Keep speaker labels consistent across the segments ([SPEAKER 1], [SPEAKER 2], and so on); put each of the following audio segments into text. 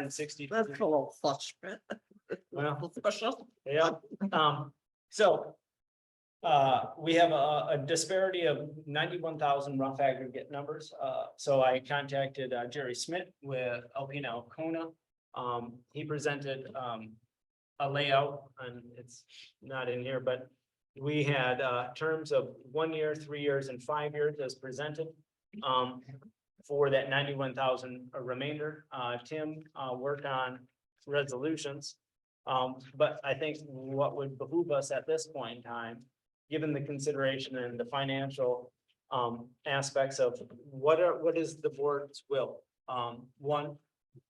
[SPEAKER 1] and sixty.
[SPEAKER 2] That's a little flush, but.
[SPEAKER 1] Well,
[SPEAKER 2] Special.
[SPEAKER 1] yeah, um, so. Uh, we have a, a disparity of ninety-one thousand rough aggregate numbers, uh, so I contacted uh, Jerry Smith with Alpina Alcona. Um, he presented, um, a layout, and it's not in here, but. We had, uh, terms of one year, three years, and five years as presented. Um, for that ninety-one thousand remainder, uh, Tim, uh, worked on resolutions. Um, but I think what would behoove us at this point in time, given the consideration and the financial. Um, aspects of what are, what is the board's will? Um, one,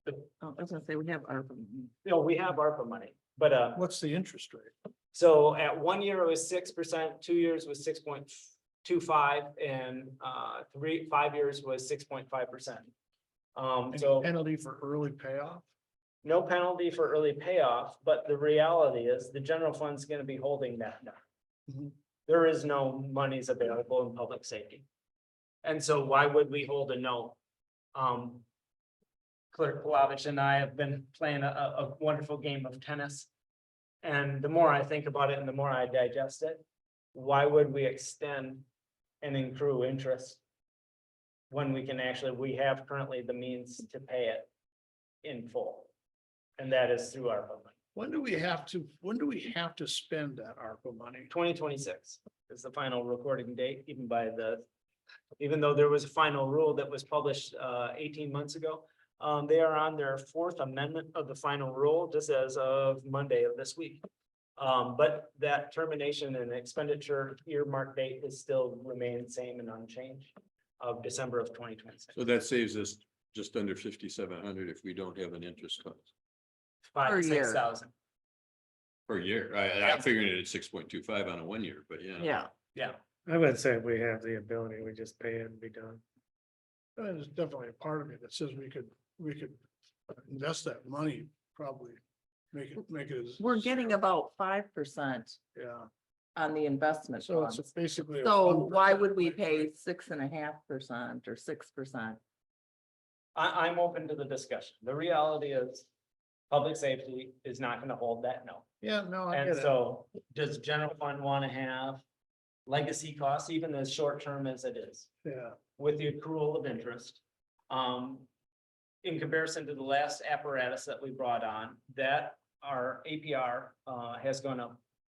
[SPEAKER 2] Oh, I was gonna say, we have mm-hmm. ARPA.
[SPEAKER 1] you know, we have ARPA money, but, uh,
[SPEAKER 3] What's the interest rate?
[SPEAKER 1] so at one year it was six percent, two years was six point two five, and, uh, three, five years was six point five percent. Um,
[SPEAKER 3] Any
[SPEAKER 1] so.
[SPEAKER 3] Penalty for early payoff?
[SPEAKER 1] no penalty for early payoff, but the reality is the general fund's gonna be holding that now.
[SPEAKER 2] Mhm.
[SPEAKER 1] There is no monies available in public safety. And so why would we hold a note? Um. Clerk Palovich and I have been playing a, a a wonderful game of tennis. And the more I think about it and the more I digest it, why would we extend and accrue interest? When we can actually, we have currently the means to pay it in full. And that is through our
[SPEAKER 3] When do we have to, when do we have to spend that ARPA money?
[SPEAKER 1] Twenty twenty-six is the final recording date, even by the, even though there was a final rule that was published uh eighteen months ago. Um, they are on their fourth amendment of the final rule, just as of Monday of this week. Um, but that termination and expenditure earmark date is still remain same and unchanged of December of twenty twenty-six.
[SPEAKER 4] So that saves us just under fifty-seven hundred if we don't have an interest cost
[SPEAKER 2] Per
[SPEAKER 1] Five, six
[SPEAKER 2] year.
[SPEAKER 1] thousand,
[SPEAKER 4] per year. I, I figured it at six point two five on a one year, but yeah.
[SPEAKER 2] Yeah,
[SPEAKER 1] yeah.
[SPEAKER 5] I would say if we have the ability, we just pay it and be done.
[SPEAKER 3] And there's definitely a part of me that says we could, we could invest that money, probably make it, make it. as-
[SPEAKER 2] we're getting about five percent
[SPEAKER 3] Yeah,
[SPEAKER 2] on the investment
[SPEAKER 3] so it's
[SPEAKER 2] funds.
[SPEAKER 3] basically. a
[SPEAKER 2] So
[SPEAKER 3] fund-
[SPEAKER 2] why would we pay six and a half percent or six percent?
[SPEAKER 1] I, I'm open to the discussion. The reality is, public safety is not gonna hold that note.
[SPEAKER 3] Yeah, no, I
[SPEAKER 1] And
[SPEAKER 3] get it.
[SPEAKER 1] so, does general fund wanna have legacy costs, even as short term as it is,
[SPEAKER 3] Yeah,
[SPEAKER 1] with the accrual of interest? Um, in comparison to the last apparatus that we brought on, that our APR, uh, has gone up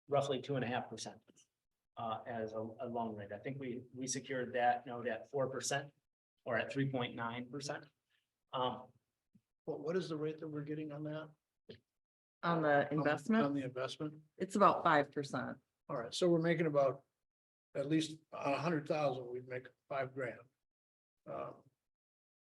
[SPEAKER 1] roughly two and a half percent. Uh, as a, a loan rate. I think we, we secured that note at four percent or at three point nine percent. Um,
[SPEAKER 3] but what is the rate that we're getting on that?
[SPEAKER 2] On the
[SPEAKER 3] On- On
[SPEAKER 2] investment,
[SPEAKER 3] the investment?
[SPEAKER 2] it's about five percent.
[SPEAKER 3] All right, so we're making about, at least a hundred thousand, we'd make five grand. Uh,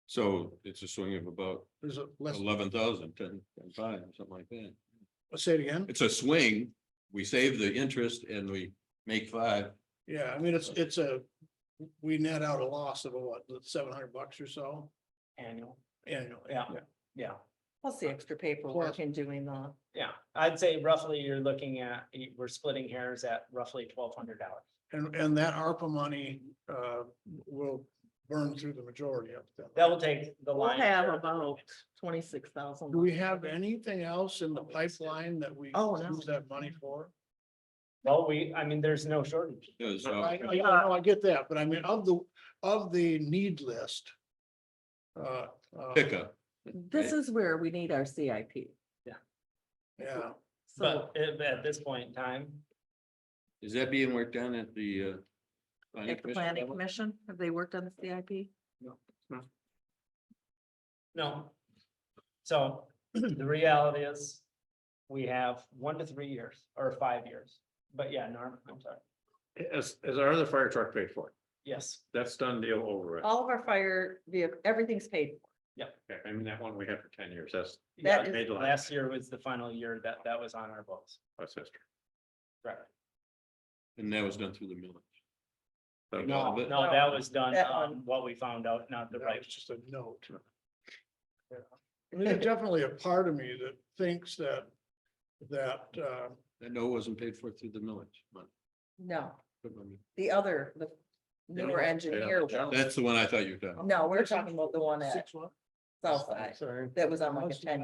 [SPEAKER 4] So it's a swing of about
[SPEAKER 3] There's a less,
[SPEAKER 4] eleven thousand, ten, ten five, something like that.
[SPEAKER 3] say it again?
[SPEAKER 4] It's a swing. We save the interest and we make five.
[SPEAKER 3] Yeah, I mean, it's, it's a, we net out a loss of what, seven hundred bucks or so
[SPEAKER 1] annual,
[SPEAKER 3] annually.
[SPEAKER 1] yeah, yeah.
[SPEAKER 2] Plus the extra paperwork
[SPEAKER 3] Plus-
[SPEAKER 2] in doing the,
[SPEAKER 1] Yeah, I'd say roughly you're looking at, we're splitting hairs at roughly twelve hundred dollars.
[SPEAKER 3] And, and that ARPA money, uh, will burn through the majority of them.
[SPEAKER 1] That will take the
[SPEAKER 2] we'll
[SPEAKER 1] line.
[SPEAKER 2] have about twenty-six thousand.
[SPEAKER 3] Do we have anything else in the pipeline that we
[SPEAKER 2] Oh, no.
[SPEAKER 3] use that money for?
[SPEAKER 1] Well, we, I mean, there's no shortage.
[SPEAKER 4] Yeah,
[SPEAKER 3] I,
[SPEAKER 4] so-
[SPEAKER 3] I, I know, I get that, but I mean, of the, of the need list. Uh, uh,
[SPEAKER 4] Pickup.
[SPEAKER 2] This is where we need our CIP.
[SPEAKER 3] yeah,
[SPEAKER 2] So
[SPEAKER 1] But at, at this point in time,
[SPEAKER 4] Is that being worked on at the uh? planning
[SPEAKER 2] at the
[SPEAKER 4] commission
[SPEAKER 2] planning
[SPEAKER 4] level?
[SPEAKER 2] commission, have they worked on the CIP?
[SPEAKER 1] no. So the reality is, we have one to three years or five years. But yeah, Norm, I'm sorry.
[SPEAKER 5] As, as our other fire truck paid for, it.
[SPEAKER 1] Yes,
[SPEAKER 5] that's done deal over it.
[SPEAKER 2] All of our fire vehicle, everything's paid.
[SPEAKER 5] Okay, I mean, that one we had for ten years, that's,
[SPEAKER 1] yeah,
[SPEAKER 2] That is-
[SPEAKER 5] paid last.
[SPEAKER 1] last year was the final year that that was on our books.
[SPEAKER 5] that's history.
[SPEAKER 1] Right.
[SPEAKER 4] And that was done through the millage.
[SPEAKER 5] So-
[SPEAKER 1] No,
[SPEAKER 4] but-
[SPEAKER 1] no, that was done
[SPEAKER 2] That
[SPEAKER 1] on what we found out, not the
[SPEAKER 3] that
[SPEAKER 1] right.
[SPEAKER 3] was just a note. I mean, There's definitely a part of me that thinks that, that, uh,
[SPEAKER 4] That no wasn't paid for through the millage. money.
[SPEAKER 2] No,
[SPEAKER 4] But, I mean,
[SPEAKER 2] the other, the newer engineer. one.
[SPEAKER 4] That's the one I thought you were talking. about.
[SPEAKER 2] No, we're talking about the one at
[SPEAKER 3] six Oh, what?
[SPEAKER 2] Southside
[SPEAKER 5] Sorry.
[SPEAKER 2] that was on like a
[SPEAKER 3] Mostly
[SPEAKER 2] ten